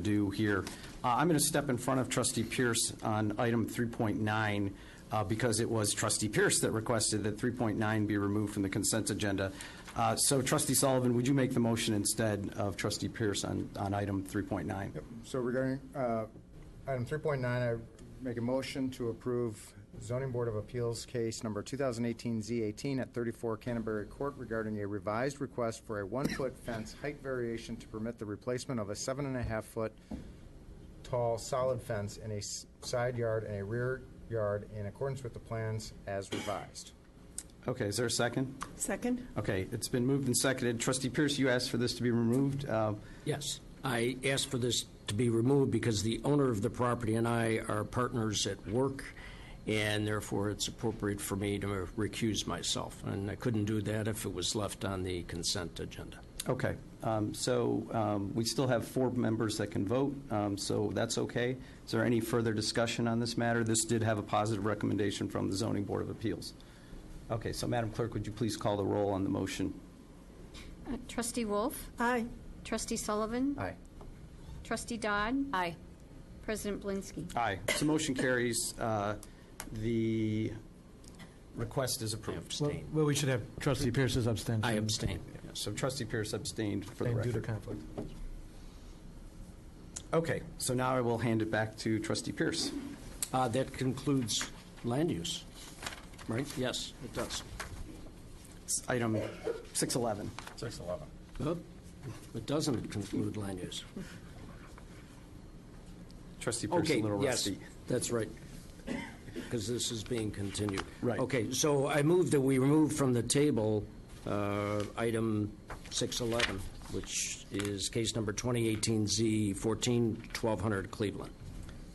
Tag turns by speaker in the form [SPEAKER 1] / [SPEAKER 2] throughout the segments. [SPEAKER 1] do here. Uh, I'm going to step in front of trustee Pierce on item 3.9 uh, because it was trustee Pierce that requested that 3.9 be removed from the consent agenda. Uh, So trustee Sullivan, would you make the motion instead of trustee Pierce on, on item 3.9?
[SPEAKER 2] So regarding uh, item 3.9, I make a motion to approve zoning board of appeals case number 2018-Z18 at 34 Canterbury Court regarding a revised request for a one-foot fence height variation to permit the replacement of a seven and a half foot tall solid fence in a s- side yard and a rear yard in accordance with the plans as revised.
[SPEAKER 1] Okay, is there a second?
[SPEAKER 3] Second?
[SPEAKER 1] Okay, it's been moved and seconded. Trustee Pierce, you asked for this to be removed. Uh,
[SPEAKER 4] Yes, I asked for this to be removed because the owner of the property and I are partners at work, and therefore it's appropriate for me to recuse myself. And I couldn't do that if it was left on the consent agenda.
[SPEAKER 1] Okay, um, so um, we still have four members that can vote, um, so that's okay. Is there any further discussion on this matter? This did have a positive recommendation from the Zoning Board of Appeals. Okay, so Madam Clerk, would you please call the roll on the motion?
[SPEAKER 5] Uh, Trustee Wolf?
[SPEAKER 3] Aye.
[SPEAKER 5] Trustee Sullivan?
[SPEAKER 2] Aye.
[SPEAKER 5] Trustee Dodd?
[SPEAKER 3] Aye.
[SPEAKER 5] President Blinsky?
[SPEAKER 1] Aye. So motion carries. Uh, The request is
[SPEAKER 4] I
[SPEAKER 1] approved.
[SPEAKER 6] Well-
[SPEAKER 4] abstain.
[SPEAKER 6] Well, we should have trustee Pierce's abstention.
[SPEAKER 4] I abstain.
[SPEAKER 1] So trustee Pierce abstained for the
[SPEAKER 6] And Due to
[SPEAKER 1] record.
[SPEAKER 6] conflict.
[SPEAKER 1] Okay, so now I will hand it back to trustee Pierce.
[SPEAKER 4] Uh, That concludes land use, right? Yes, it does.
[SPEAKER 1] It's Item 611.
[SPEAKER 4] Nope, It doesn't conclude land use.
[SPEAKER 1] Trustee Pierce, a
[SPEAKER 4] Okay,
[SPEAKER 1] little
[SPEAKER 4] yes,
[SPEAKER 1] rusty.
[SPEAKER 4] that's right, because this is being continued.
[SPEAKER 1] Right.
[SPEAKER 4] Okay, so I move that we remove from the table uh, item 611, which is case number 2018Z14-1200 Cleveland.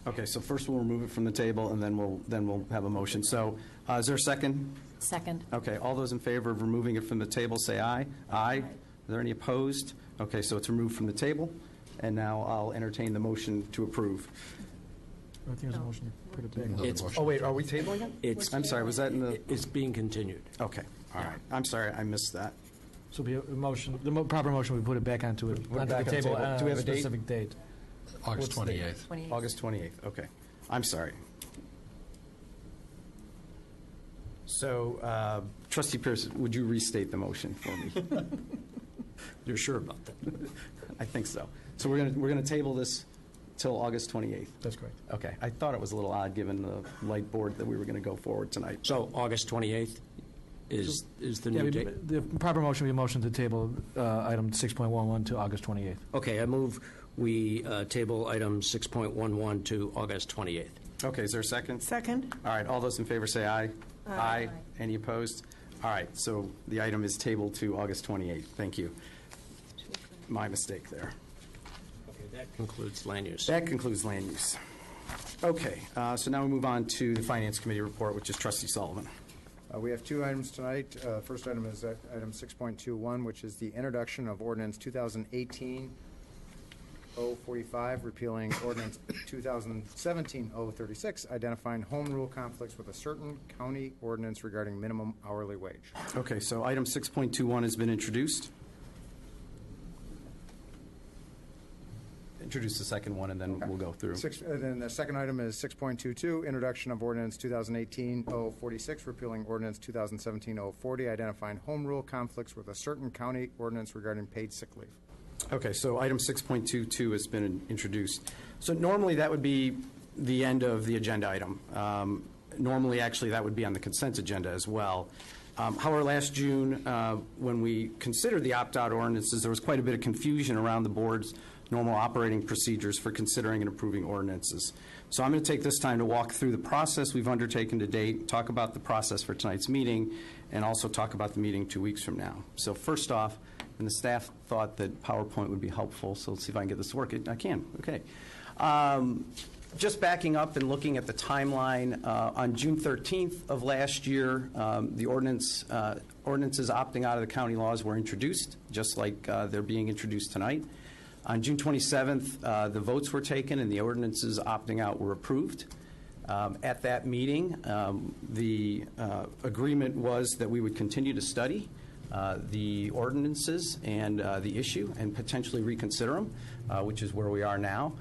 [SPEAKER 1] Okay, so first we'll remove it from the table, and then we'll, then we'll have a motion. So uh, is there a second?
[SPEAKER 3] Second?
[SPEAKER 1] Okay, all those in favor of removing it from the table, say aye. Aye. Are there any opposed? Okay, so it's removed from the table, and now I'll entertain the motion to approve.
[SPEAKER 6] I think there's a motion to put it back.
[SPEAKER 4] It's,
[SPEAKER 1] Oh, wait, are we tabling it?
[SPEAKER 4] it's,
[SPEAKER 1] I'm sorry, was that in the,
[SPEAKER 4] it's being continued.
[SPEAKER 1] okay, all right. I'm sorry, I missed that.
[SPEAKER 6] So be a a motion, the mo- proper motion, we put it back onto it,
[SPEAKER 1] it
[SPEAKER 6] onto the
[SPEAKER 1] back on the
[SPEAKER 6] table
[SPEAKER 1] table.
[SPEAKER 6] on
[SPEAKER 1] Do we
[SPEAKER 6] a
[SPEAKER 1] have a date?
[SPEAKER 6] specific date.
[SPEAKER 7] August
[SPEAKER 6] What's the date?
[SPEAKER 7] 28th.
[SPEAKER 1] August 28th, okay. I'm sorry. So uh, trustee Pierce, would you restate the motion for me?
[SPEAKER 4] You're sure about that?
[SPEAKER 1] I think so. So we're going to, we're going to table this till August 28th.
[SPEAKER 6] That's correct.
[SPEAKER 1] Okay, I thought it was a little odd, given the light board, that we were going to go forward tonight.
[SPEAKER 4] So August 28th is, is the
[SPEAKER 6] Yeah,
[SPEAKER 4] new
[SPEAKER 6] we-
[SPEAKER 4] date?
[SPEAKER 6] The proper motion, we motion to table uh, item 6.11 to August 28th.
[SPEAKER 4] Okay, I move we uh, table item 6.11 to August 28th.
[SPEAKER 1] Okay, is there a second?
[SPEAKER 3] Second?
[SPEAKER 1] All right, all those in favor say aye. Aye. Any opposed? All right, so the item is tabled to August 28th. Thank you. My mistake there.
[SPEAKER 4] That concludes land use.
[SPEAKER 1] That concludes land use. Okay, uh, so now we move on to the Finance Committee report, which is trustee Sullivan.
[SPEAKER 2] Uh, We have two items tonight. Uh, First item is uh, item 6.21, which is the introduction of ordinance 2018-045, repealing ordinance 2017-036, identifying home rule conflicts with a certain county ordinance regarding minimum hourly wage.
[SPEAKER 1] Okay, so item 6.21 has been introduced. Introduce the second one, and then we'll go through.
[SPEAKER 2] Six- And then the second item is 6.22, introduction of ordinance 2018-046, repealing ordinance 2017-040, identifying home rule conflicts with a certain county ordinance regarding paid sick leave.
[SPEAKER 1] Okay, so item 6.22 has been introduced. So normally, that would be the end of the agenda item. Um, Normally, actually, that would be on the consent agenda as well. Um, However, last June, uh, when we considered the opt-out ordinances, there was quite a bit of confusion around the board's normal operating procedures for considering and approving ordinances. So I'm going to take this time to walk through the process we've undertaken to date, talk about the process for tonight's meeting, and also talk about the meeting two weeks from now. So first off, and the staff thought that PowerPoint would be helpful, so let's see if I can get this to work. I can, okay. Um, Just backing up and looking at the timeline, uh, on June 13th of last year, um, the ordinance, uh, ordinances opting out of the county laws were introduced, just like uh, they're being introduced tonight. On June 27th, uh, the votes were taken and the ordinances opting out were approved. Um, At that meeting, um, the uh, agreement was that we would continue to study uh, uh, the ordinances and uh, the issue and potentially reconsider them, which uh, is where we are now.